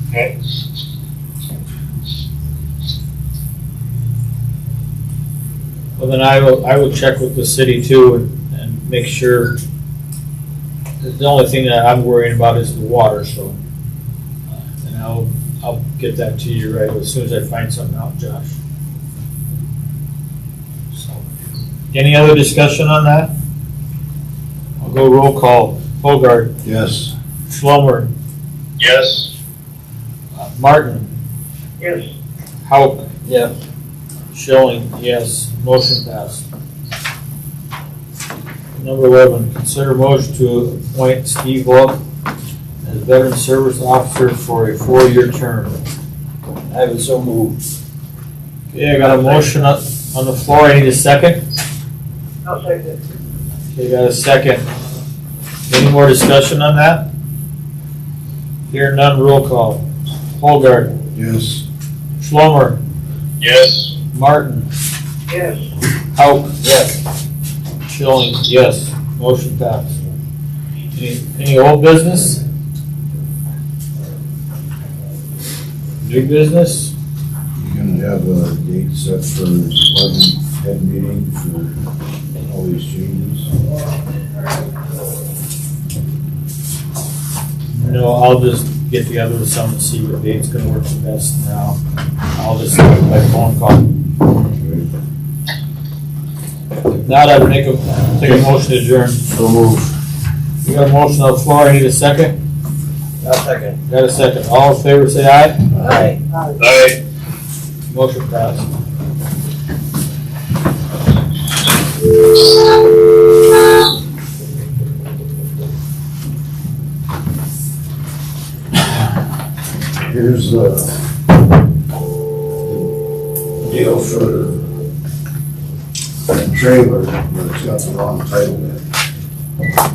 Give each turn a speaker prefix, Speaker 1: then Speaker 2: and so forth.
Speaker 1: Okay.
Speaker 2: Well, then I will, I will check with the city too and, and make sure. The only thing that I'm worrying about is the water, so. uh, And I'll, I'll get that to you right as soon as I find something out, Josh. So, Any other discussion on that? I'll go roll call. Hogard,
Speaker 3: Yes.
Speaker 2: Schlummer,
Speaker 1: Yes.
Speaker 2: uh, Martin,
Speaker 1: Yes.
Speaker 2: Hauk,
Speaker 3: Yeah.
Speaker 2: Schilling, yes. Motion passed. Number 11, consider motion to appoint Steve Wolf as Veteran Service Officer for a four-year term.
Speaker 3: I was so moved.
Speaker 2: Okay, I got a motion up on the floor. I need a second.
Speaker 1: I'll second it.
Speaker 2: Okay, got a second. Any more discussion on that? Here none, roll call. Holgard,
Speaker 3: Yes.
Speaker 2: Schlummer,
Speaker 1: Yes.
Speaker 2: Martin,
Speaker 1: Yes.
Speaker 2: Hauk. Oh, Yes. Schilling, yes. Motion passed. Any, any old business? New business?
Speaker 3: You can have a date set for department head meeting for all these changes.
Speaker 2: No, I'll just get together with some and see what date's gonna work the best now. I'll just do it by phone call.
Speaker 3: Okay.
Speaker 2: If not, I would make a, take a motion to adjourn.
Speaker 3: So moved.
Speaker 2: We got a motion on the floor. I need a second.
Speaker 3: I'll second.
Speaker 2: Got a second. All in favor, say aye.
Speaker 3: Aye.
Speaker 1: Aye.
Speaker 2: Motion passed.
Speaker 3: Here's uh, the deal for the trailer, but it's got the wrong title in it.